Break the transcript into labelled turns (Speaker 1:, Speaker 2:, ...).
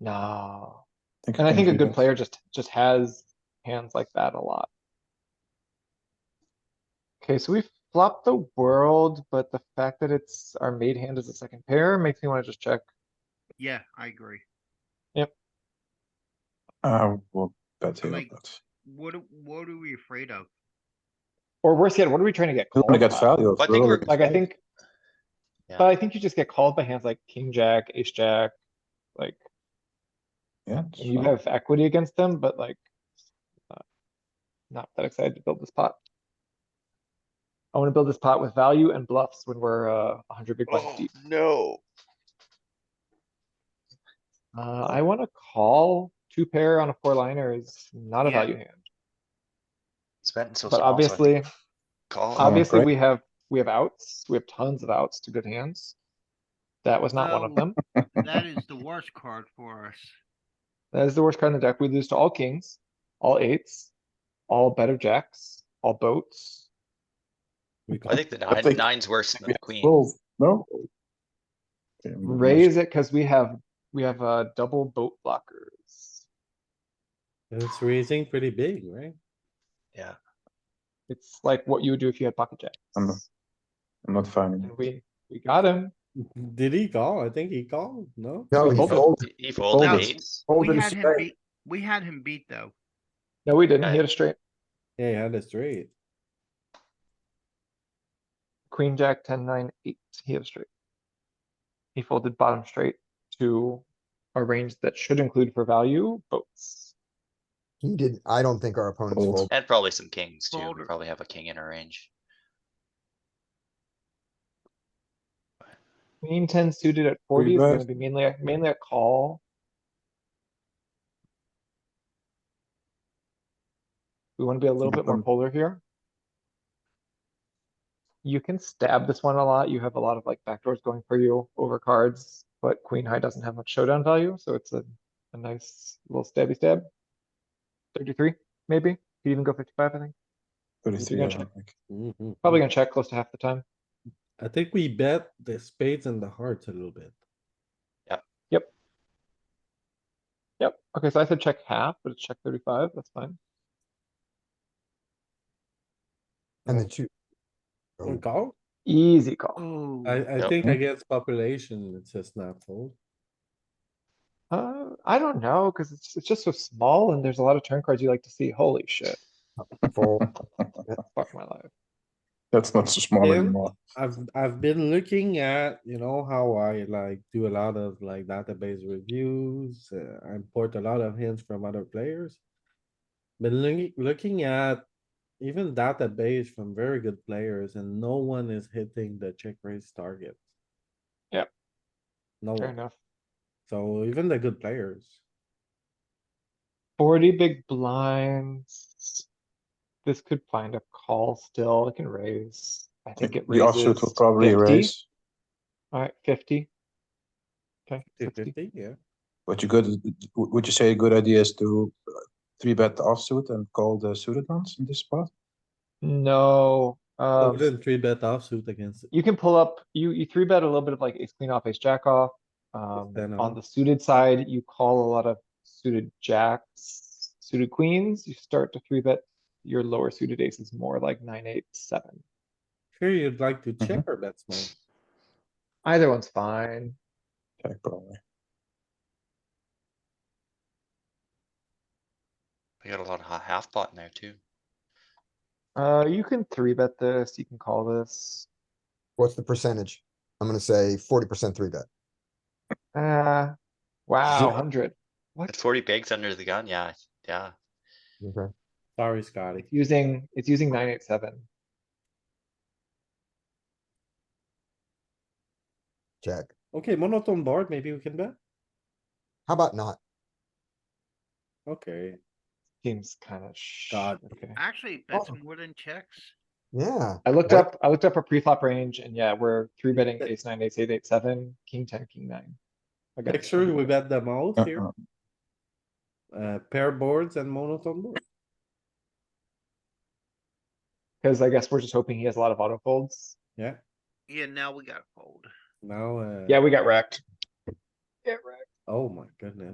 Speaker 1: Nah,
Speaker 2: Think
Speaker 1: and I
Speaker 2: can
Speaker 1: think a
Speaker 2: do
Speaker 1: good
Speaker 2: this.
Speaker 1: player just, just has hands like that a lot. Okay, so we flopped the world, but the fact that it's our made hand as a second pair makes me wanna just check.
Speaker 3: Yeah, I agree.
Speaker 2: Uh, well, bet here,
Speaker 3: Like-
Speaker 2: but.
Speaker 3: What, do- what are we afraid of?
Speaker 1: Or worse yet, what are we trying to get?
Speaker 2: We don't wanna
Speaker 1: called
Speaker 2: get
Speaker 1: by?
Speaker 2: value.
Speaker 4: I
Speaker 2: we
Speaker 4: think
Speaker 2: don't
Speaker 4: we're-
Speaker 2: wanna get
Speaker 1: Like, I
Speaker 2: value.
Speaker 1: think. But I think you just get called by hands like king, jack, ace, jack, like,
Speaker 2: Yeah. it's
Speaker 1: you
Speaker 2: fine.
Speaker 1: have equity against them, but like. not- Not that excited to build this pot. I wanna build this pot with value and bluffs when we're, uh, a hundred big blinds
Speaker 4: Oh,
Speaker 1: deep.
Speaker 4: no.
Speaker 1: Uh, I wanna call two pair on a four liner is not a
Speaker 3: Yeah.
Speaker 1: value hand,
Speaker 5: It's betting so small.
Speaker 1: but
Speaker 5: so I think
Speaker 1: obviously,
Speaker 4: Call.
Speaker 1: obviously
Speaker 2: great.
Speaker 1: we have, we have outs, we have tons of outs to good hands. That was not one of
Speaker 3: Well-
Speaker 1: them.
Speaker 3: That is the worst card for us.
Speaker 1: That is the worst card in the deck. We lose to all kings, all eights, all better jacks, all boats.
Speaker 2: We
Speaker 5: I
Speaker 2: can't-
Speaker 5: think the
Speaker 2: I
Speaker 5: nine,
Speaker 2: think-
Speaker 5: nine's worse
Speaker 2: I think
Speaker 5: than
Speaker 2: we
Speaker 5: the
Speaker 2: have
Speaker 5: queen.
Speaker 2: twelve. No. Okay, we must-
Speaker 1: Raise it because we have, we have, uh, double boat blockers.
Speaker 6: And It's raising pretty big, right?
Speaker 1: It's like what you would do if you had pocket
Speaker 2: I'm-
Speaker 1: jacks.
Speaker 2: I'm not finding.
Speaker 1: And
Speaker 2: it.
Speaker 1: we, we got him.
Speaker 6: Did he call? I think he called, no?
Speaker 7: Oh,
Speaker 2: Yeah, we
Speaker 1: fold it.
Speaker 2: fold,
Speaker 5: He- He folded
Speaker 3: Now-
Speaker 5: eights.
Speaker 2: fold
Speaker 3: We
Speaker 2: it
Speaker 3: had him
Speaker 2: straight.
Speaker 3: beat, we had him beat though.
Speaker 1: No, we didn't. He
Speaker 5: Okay.
Speaker 1: had a straight.
Speaker 6: Yeah, he had a straight.
Speaker 1: Queen, jack, ten, nine, eight. He had a straight. He folded bottom straight to a range that should include for value boats.
Speaker 7: He didn't, I don't think our opponents
Speaker 2: Fold.
Speaker 7: fold.
Speaker 5: And probably some kings too. We
Speaker 3: Folded.
Speaker 5: probably have a king in our range.
Speaker 1: Queen ten suited at forty is gonna
Speaker 2: bet.
Speaker 1: be mainly, a- mainly a call. We wanna be a little bit more
Speaker 2: Um,
Speaker 1: polar here. You can stab this one a lot. You have a lot of like backdoors going for you over cards, but queen high doesn't have much showdown value, so it's a, a nice little stabby stab. Thirty-three, maybe. Could even go fifty-five, I think.
Speaker 2: Thirty-three, I
Speaker 1: gonna
Speaker 2: don't think.
Speaker 6: Mhm.
Speaker 1: Probably gonna check close to half the time.
Speaker 6: I think we bet the spades and the hearts a little bit.
Speaker 1: Yep. Okay, so I said check half, but it's check thirty-five. That's fine.
Speaker 7: And the two.
Speaker 1: Oh.
Speaker 6: We call?
Speaker 1: Easy call.
Speaker 3: Oh,
Speaker 6: I, I
Speaker 5: Yep.
Speaker 6: think against population, it's a snap fold.
Speaker 1: Uh, I don't know, cuz it's, it's just so small and there's a lot of turn cards you like to see. Holy shit,
Speaker 7: Fold.
Speaker 1: fuck my life.
Speaker 2: That's not so small
Speaker 6: Yeah.
Speaker 2: anymore.
Speaker 6: I've, I've been looking at, you know, how I like do a lot of like database reviews, uh, I import a lot of hints from other players. Been looking, looking at even database from very good players and no one is hitting the check raise target.
Speaker 1: Yep.
Speaker 6: No,
Speaker 1: Fair
Speaker 6: one.
Speaker 1: enough.
Speaker 6: so even the good players,
Speaker 1: Forty big blinds. This could find a call still. It can raise. I think it
Speaker 2: The offsuit
Speaker 1: raises.
Speaker 2: will probably
Speaker 1: 50.
Speaker 2: raise,
Speaker 1: Alright, fifty. Okay, 50.
Speaker 6: 50, yeah.
Speaker 2: but you good, would you say a good idea is to uh, three bet the offsuit and call the suited ones in this spot?
Speaker 1: No,
Speaker 6: So
Speaker 1: um,
Speaker 6: then three bet offsuit against,
Speaker 1: you can pull up, you, you three bet a little bit of like ace queen off, ace jack off. Um,
Speaker 6: ten
Speaker 1: on
Speaker 6: off.
Speaker 1: the suited side, you call a lot of suited jacks, suited queens, you start to three bet. Your lower suited aces more like nine, eight, seven.
Speaker 6: sure you'd like
Speaker 1: Mm-hmm.
Speaker 6: to check or bet small.
Speaker 1: Either one's fine.
Speaker 2: Check probably.
Speaker 5: We got a lot of ha- half pot in there too.
Speaker 1: Uh, you can three bet this, you can call this.
Speaker 7: What's the percentage? I'm gonna say forty percent three bet.
Speaker 1: Uh, wow, hundred.
Speaker 5: At forty bigs under the gun, yeah, yeah.
Speaker 7: Okay.
Speaker 6: Sorry, Scotty.
Speaker 1: It's using, it's using nine, eight, seven.
Speaker 7: Check.
Speaker 6: Okay, monotone board, maybe we can bet?
Speaker 7: How about not?
Speaker 6: Okay,
Speaker 1: Seems kind of sh.
Speaker 6: God.
Speaker 1: Okay.
Speaker 3: actually, that's
Speaker 7: Oh.
Speaker 3: more than checks.
Speaker 7: Yeah,
Speaker 1: I looked
Speaker 7: What-
Speaker 1: up, I looked up our pre-flop range and yeah, we're three betting
Speaker 6: But-
Speaker 1: ace nine, ace eight, eight, seven, king ten, king nine. I got
Speaker 6: make
Speaker 1: it.
Speaker 6: sure we bet them out here.
Speaker 2: Uh-uh.
Speaker 6: Uh, pair boards and monotone board.
Speaker 1: Cause I guess we're just hoping he has a lot of auto folds.
Speaker 3: Yeah, now we got fold.
Speaker 6: Now, uh,
Speaker 1: Yeah, we got wrecked. Get wrecked.
Speaker 6: oh my goodness.